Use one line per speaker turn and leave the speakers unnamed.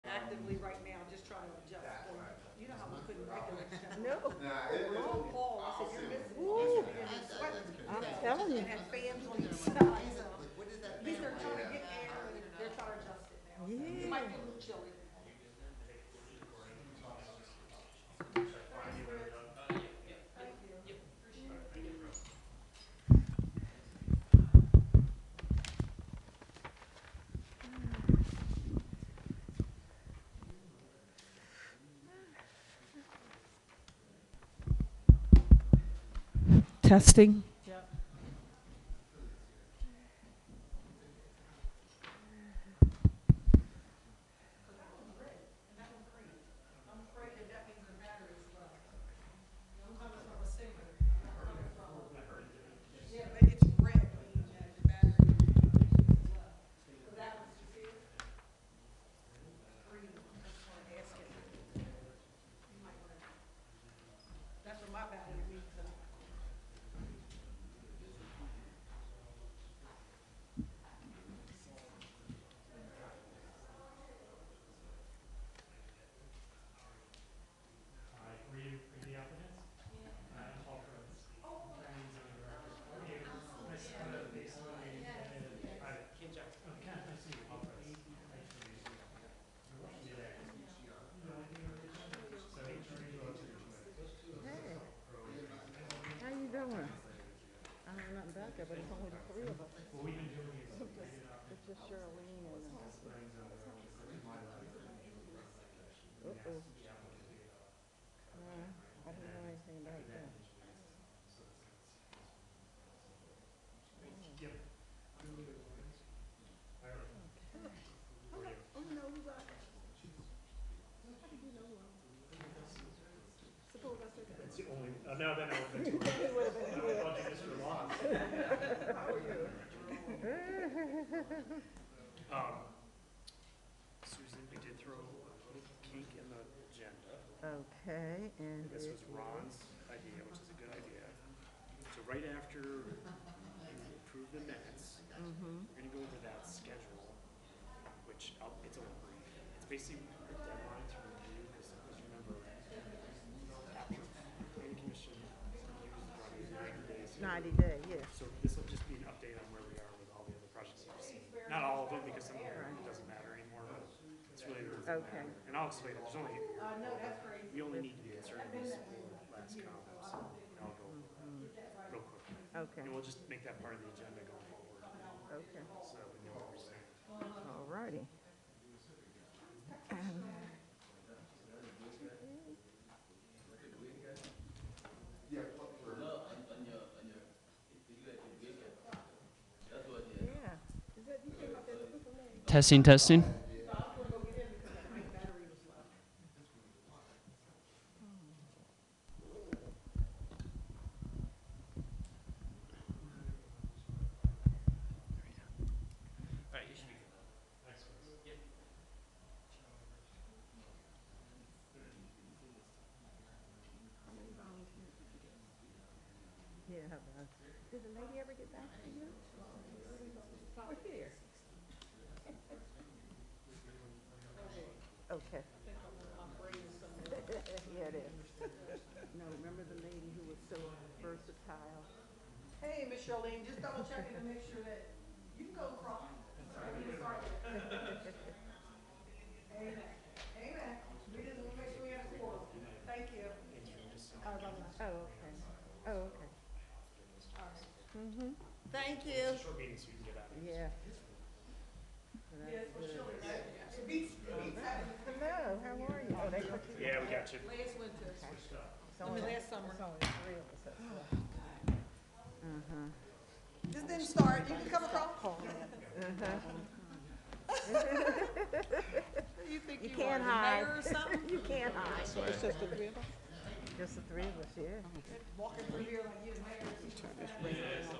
telling you.
and had fans on each side, so at least they're trying to get air, and they're trying to adjust it now. It might be a little chilly.
Testing.
Yeah, but it's red, you know, the battery. So that was your fear? Green, that's what I'm asking. You might wanna- That's what my battery means, uh,
How you doing? I don't know nothing about that, but it's only the three of us. It's just Charlene and. uh, Uh-oh. No, I didn't know anything about that.
oh, no, we got. How did you know who I was? Suppose I said that.
It's the only, uh, no, then I would have been too.
It would've been-
I would have thought you just were lost. Um, Susan, we did throw a little kink in the agenda.
Okay, and
This
it
was Ron's idea, which is a good idea. So right after you approve the minutes, we're gonna go over that schedule, which I'll, it's a little brief. It's basically a deadline to review, because remember, after planning commission reviews the project is
ninety
ninety days.
day, yes.
So this will just be an update on where we are with all the other projects you've seen. Not all of them, because some of them it doesn't matter anymore, but it's really, the ones that
Okay.
matter. and I'll explain it, there's only. We only need to be concerned with these last comments, and I'll go over that real quick.
Okay,
And we'll just make that part of the agenda going forward,
okay,
so we know what we're saying.
all righty. Yeah.
Testing, testing.
Yeah, how about? Did the lady ever get back to you? We're here. Okay. Yeah, it is. No, remember the lady who was so versatile?
Hey, Miss Charlene, just double checking to make sure that you can go across. Amen, amen. We just want to make sure we have a forum. Thank you. All right, bye-bye.
Oh, okay. Oh, okay.
Thank you.
Short meeting, so you can get out of here.
Yeah.
Yes, for sure. It beats, it beats having
Hello, how are you? Oh, they put you.
Yeah, we got you.
last winter.
It's only-
last summer.
it's only three of us. that's left.
This didn't start. You can come across. You think
You
you are
can't
the
hide.
mayor or something?
You can't hide. It's just the three of us? Just the three of us, yeah.
Walking through here like you're the mayor.